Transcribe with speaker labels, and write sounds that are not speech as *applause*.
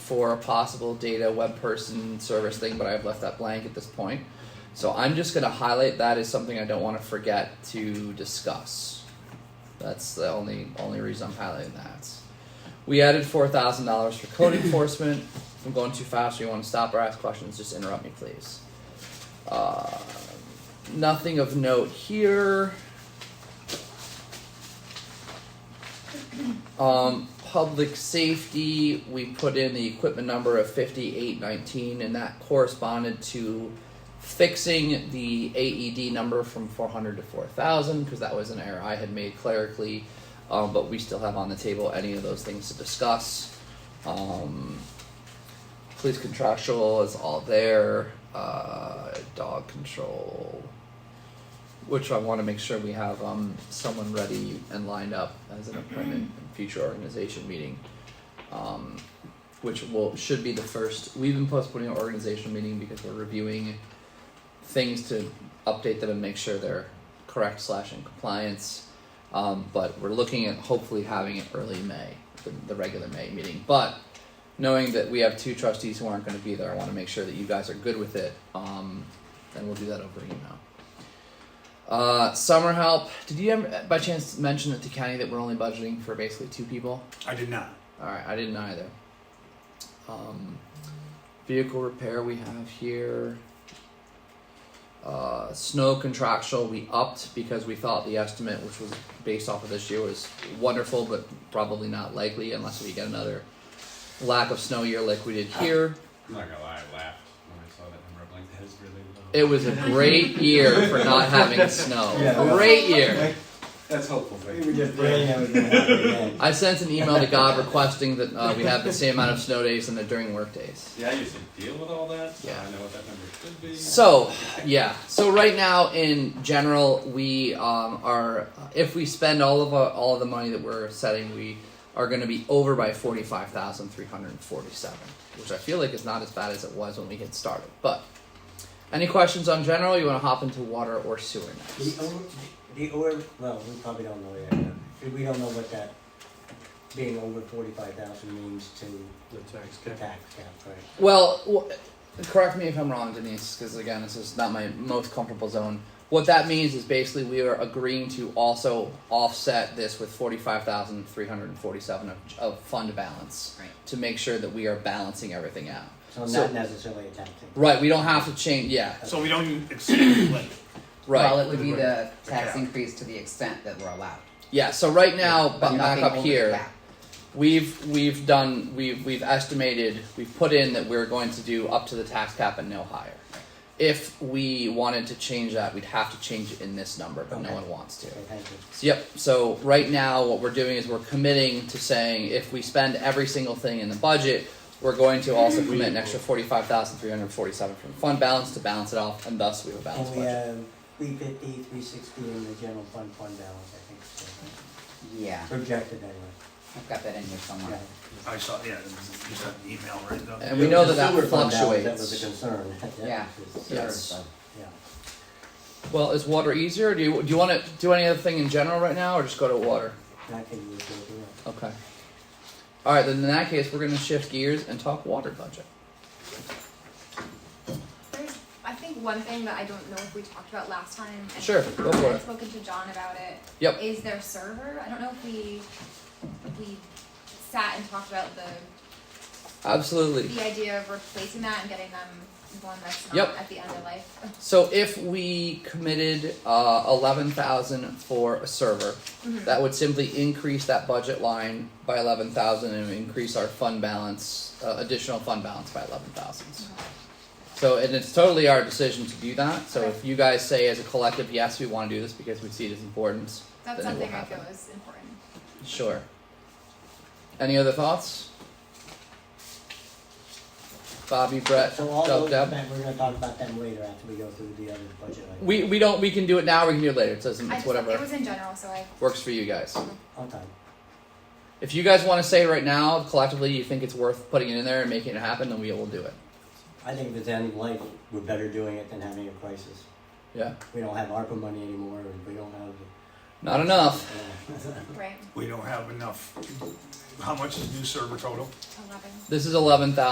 Speaker 1: for a possible data web person service thing, but I've left that blank at this point. So I'm just going to highlight that as something I don't want to forget to discuss. That's the only only reason I'm highlighting that. We added four thousand dollars for code enforcement. If I'm going too fast or you want to stop or ask questions, just interrupt me, please. Uh, nothing of note here. Um, public safety, we put in the equipment number of fifty-eight nineteen, and that corresponded to fixing the AED number from four hundred to four thousand, because that was an error I had made clerically. Um, but we still have on the table any of those things to discuss. Um, police contractual is all there. Uh, dog control, which I want to make sure we have um, someone ready and lined up as an appointment in future organization meeting, um, which will should be the first. We've been postponing our organizational meeting because we're reviewing things to update them and make sure they're correct slash in compliance. Um, but we're looking at hopefully having it early May, the, the regular May meeting. But knowing that we have two trustees who aren't going to be there, I want to make sure that you guys are good with it. Um, and we'll do that over email. Uh, summer help. Did you ever, by chance mention it to Kenny that we're only budgeting for basically two people?
Speaker 2: I did not.
Speaker 1: All right, I didn't either. Um, vehicle repair we have here. Uh, snow contractual we upped because we thought the estimate, which was based off of this year, was wonderful, but probably not likely unless we get another lack of snow year like we did here.
Speaker 3: I'm not gonna lie, I laughed when I saw that number. I'm like, that is really low.
Speaker 1: It was a great year for not having snow.
Speaker 4: Yeah.
Speaker 1: Great year.
Speaker 3: That's hopeful, but
Speaker 4: We were just praying that was gonna
Speaker 1: *laughs*
Speaker 4: happen again.
Speaker 1: I sent an email to God requesting that uh, we have the same amount of snow days and the during work days.
Speaker 3: yeah, I used to deal with all that, so
Speaker 1: Yeah.
Speaker 3: I know what that number should be.
Speaker 1: So, yeah. So right now, in general, we um, are if we spend all of our, all of the money that we're setting, we are going to be over by forty five thousand three hundred forty seven, which I feel like is not as bad as it was when we get started. But any questions on general? You want to hop into water or sewer
Speaker 4: The
Speaker 1: next?
Speaker 4: over, the over, well, we probably don't know yet. huh? We don't know what that being over forty-five thousand means to
Speaker 2: The tax
Speaker 4: the tax cap, right?
Speaker 1: Well, w- correct me if I'm wrong, Denise, because again, this is not my most comfortable zone. What that means is basically we are agreeing to also offset this with forty-five thousand three hundred and forty-seven of, of fund balance
Speaker 5: Right.
Speaker 1: to make sure that we are balancing everything out.
Speaker 4: So
Speaker 1: So-
Speaker 4: not necessarily a tax increase.
Speaker 1: Right, we don't have to change. Yeah,
Speaker 2: So we don't exceed the limit.
Speaker 1: right.
Speaker 5: Well, it would be the
Speaker 2: The
Speaker 5: tax
Speaker 2: cap.
Speaker 5: increase to the extent that we're allowed.
Speaker 1: yeah. So right now, but
Speaker 5: But
Speaker 1: back
Speaker 5: nothing
Speaker 1: up
Speaker 5: over the
Speaker 1: here.
Speaker 5: cap.
Speaker 1: We've we've done we've we've estimated we've put in that we're going to do up to the tax cap and no higher. If we wanted to change that, we'd have to change it in this number, but no
Speaker 4: Okay.
Speaker 1: one wants to.
Speaker 4: Okay, thank you.
Speaker 1: So, yep. So right now, what we're doing is we're committing to saying if we spend every single thing in the budget, we're going to also commit an extra forty-five thousand three hundred forty-seven from fund balance to balance it off, and thus we have a balanced
Speaker 4: And we
Speaker 1: budget.
Speaker 4: have uh, three fifty, three sixty in the general fund fund balance, I think, so,
Speaker 5: Yeah,
Speaker 4: projected anyway.
Speaker 5: I've got that in here somewhere.
Speaker 4: Yeah.
Speaker 2: I saw, yeah, it was just an email right though.
Speaker 1: And we know that
Speaker 4: The
Speaker 1: that
Speaker 4: sewer fund balance, That
Speaker 1: fluctuates.
Speaker 4: was a concern. *laughs* That
Speaker 5: Yeah.
Speaker 4: was-
Speaker 1: Yes.
Speaker 4: Yeah.
Speaker 1: Well, is water easier? Do you do you want to do any other thing in general right now, or just go to water?
Speaker 4: That could be a good deal.
Speaker 1: Okay. All right, then in that case, we're going to shift gears and talk water budget.
Speaker 6: There's, I think one thing that I don't know if we talked about last time. and
Speaker 1: Sure, go for
Speaker 6: I
Speaker 1: it.
Speaker 6: had spoken to John about it.
Speaker 1: Yep.
Speaker 6: Is their server, I don't know if we, we sat and talked about the,
Speaker 1: Absolutely.
Speaker 6: the idea of replacing that and getting them one that's
Speaker 1: Yep.
Speaker 6: not at the end of life.
Speaker 1: So if we committed uh, eleven thousand for a server, that would simply increase that budget line by eleven thousand and increase our fund balance, uh, additional fund balance by eleven thousand. So and it's totally our decision to do that. So if you guys say as a collective, yes, we want to do this because we see it as important,
Speaker 6: That's
Speaker 1: then it will
Speaker 6: something I
Speaker 1: happen.
Speaker 6: feel is important.
Speaker 1: Sure. Any other thoughts? Bobby, Brett,
Speaker 4: So all
Speaker 1: Dub,
Speaker 4: those,
Speaker 1: Deb.
Speaker 4: that- we're gonna talk about them later after we go through the other budget items.
Speaker 1: We we don't we can do it now. We can do it later. It doesn't.
Speaker 6: I
Speaker 1: It's
Speaker 6: just, it
Speaker 1: whatever
Speaker 6: was in general, so I,
Speaker 1: works for you guys.
Speaker 4: Okay,
Speaker 1: If you guys want to say right now collectively you think it's worth putting it in there and making it happen, then we will do it.
Speaker 4: I think if it's end of life, we're better doing it than having a crisis.
Speaker 1: Yeah.
Speaker 4: We don't have ARPA money anymore, and we don't have
Speaker 1: Not enough.
Speaker 6: right,
Speaker 2: We don't have enough, how much is new server total?
Speaker 6: eleven.
Speaker 1: This is eleven thousand.